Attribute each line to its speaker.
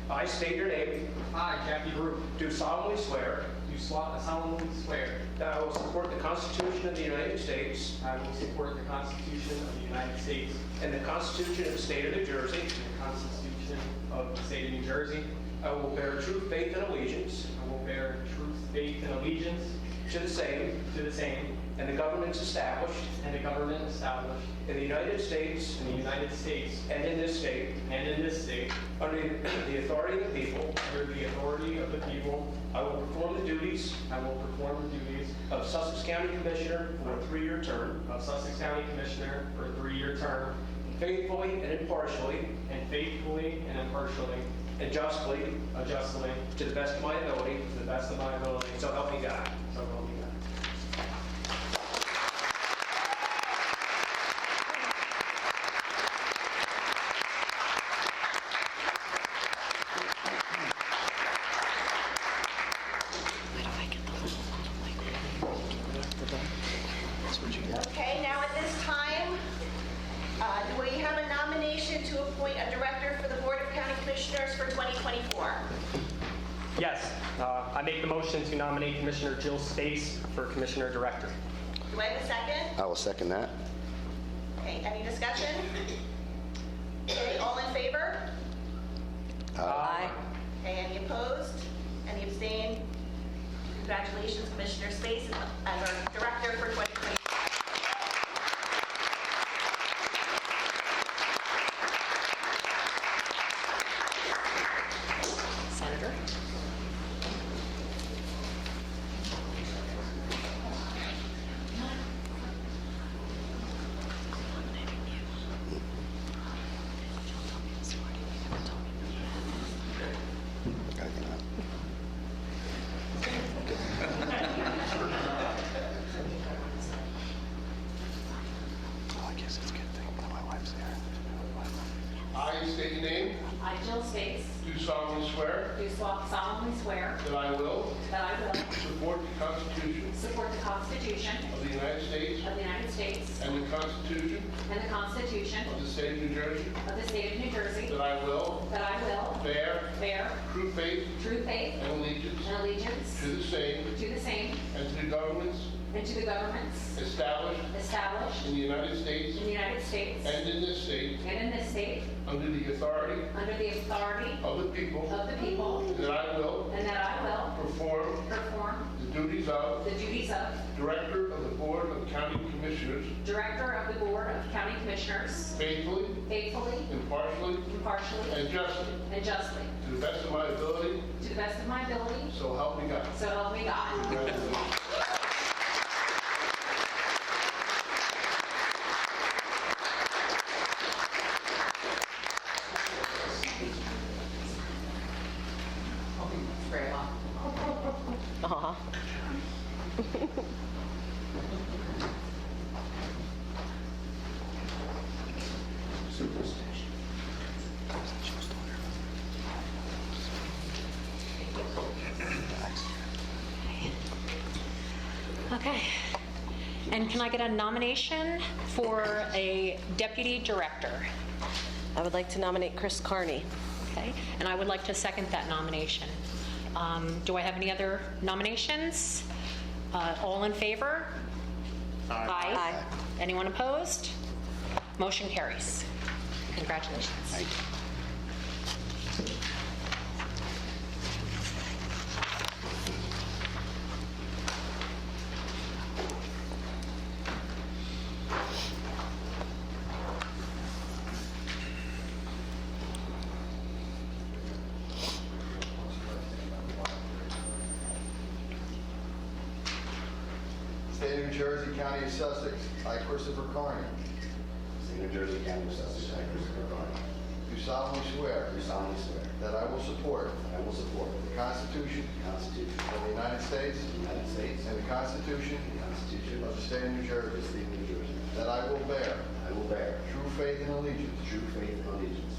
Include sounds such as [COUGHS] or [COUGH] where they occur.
Speaker 1: [COUGHS] I state your name,
Speaker 2: I, Jackie Root,
Speaker 1: do solemnly swear
Speaker 2: do solemnly swear
Speaker 1: that I will support the Constitution of the United States
Speaker 2: I will support the Constitution of the United States
Speaker 1: and the Constitution of the State of New Jersey.
Speaker 2: and the Constitution of the State of New Jersey.
Speaker 1: I will bear true faith and allegiance
Speaker 2: I will bear true faith and allegiance
Speaker 1: to the same
Speaker 2: to the same
Speaker 1: and the governments established
Speaker 2: and the government established
Speaker 1: in the United States
Speaker 2: in the United States
Speaker 1: and in this state
Speaker 2: and in this state
Speaker 1: under the authority of the people.
Speaker 2: under the authority of the people.
Speaker 1: I will perform the duties
Speaker 2: I will perform the duties
Speaker 1: of Sussex County Commissioner for a three-year term
Speaker 2: of Sussex County Commissioner for a three-year term
Speaker 1: faithfully and impartially
Speaker 2: and faithfully and impartially,
Speaker 1: and justly
Speaker 2: and justly,
Speaker 1: to the best of my ability.
Speaker 2: to the best of my ability,
Speaker 1: So help me God.
Speaker 2: so help me God.
Speaker 3: Okay, now at this time, uh, do we have a nomination to appoint a director for the Board of County Commissioners for 2024?
Speaker 2: Yes, uh, I make the motion to nominate Commissioner Jill Space for Commissioner Director.
Speaker 3: Do I have a second?
Speaker 4: I will second that.
Speaker 3: Okay, any discussion? Okay, all in favor?
Speaker 5: Aye.
Speaker 2: Uh,
Speaker 3: Okay, any opposed? Any abstained? Congratulations, Commissioner Space, as our director for 2024.
Speaker 5: Senator?
Speaker 4: I cannot. Oh, I guess it's a good thing that my wife's there.
Speaker 6: I state your name,
Speaker 7: I, Jill Space,
Speaker 6: do solemnly swear
Speaker 7: do solemnly swear
Speaker 6: that I will
Speaker 7: that I will
Speaker 6: support the Constitution
Speaker 7: support the Constitution
Speaker 6: of the United States
Speaker 7: of the United States
Speaker 6: and the Constitution
Speaker 7: and the Constitution
Speaker 6: of the State of New Jersey,
Speaker 7: of the State of New Jersey,
Speaker 6: that I will
Speaker 7: that I will
Speaker 6: bear
Speaker 7: bear
Speaker 6: true faith
Speaker 7: true faith
Speaker 6: and allegiance
Speaker 7: and allegiance
Speaker 6: to the same
Speaker 7: to the same
Speaker 6: and to the governments
Speaker 7: and to the governments
Speaker 6: established
Speaker 7: established
Speaker 6: in the United States
Speaker 7: in the United States
Speaker 6: and in this state
Speaker 7: and in this state
Speaker 6: under the authority
Speaker 7: under the authority
Speaker 6: of the people,
Speaker 7: of the people,
Speaker 6: that I will
Speaker 7: and that I will
Speaker 6: perform
Speaker 7: perform
Speaker 6: the duties of
Speaker 7: the duties of
Speaker 6: Director of the Board of County Commissioners
Speaker 7: Director of the Board of County Commissioners
Speaker 6: faithfully,
Speaker 7: faithfully,
Speaker 6: impartially,
Speaker 7: impartially,
Speaker 6: and justly,
Speaker 7: and justly,
Speaker 6: to the best of my ability,
Speaker 7: to the best of my ability,
Speaker 6: So help me God.
Speaker 7: So help me God.
Speaker 6: Congratulations.
Speaker 7: Grandma.
Speaker 5: Uh-huh.
Speaker 8: Okay. And can I get a nomination for a deputy director?
Speaker 5: I would like to nominate Chris Carney.
Speaker 8: Okay, and I would like to second that nomination. Um, Do I have any other nominations? Uh, All in favor? Aye.
Speaker 5: Aye.
Speaker 8: Anyone opposed? Motion carries. Congratulations.
Speaker 9: State of New Jersey, County of Sussex, I, Christopher Carney,
Speaker 4: State of New Jersey, County of Sussex, I, Christopher Carney,
Speaker 9: do solemnly swear
Speaker 4: do solemnly swear
Speaker 9: that I will support
Speaker 4: that I will support
Speaker 9: the Constitution
Speaker 4: the Constitution
Speaker 9: of the United States
Speaker 4: of the United States
Speaker 9: and the Constitution
Speaker 4: and the Constitution
Speaker 9: of the State of New
Speaker 4: of the
Speaker 9: Jersey,
Speaker 4: State of New Jersey,
Speaker 9: that I will bear
Speaker 4: that I will bear
Speaker 9: true faith and allegiance
Speaker 4: true faith and allegiance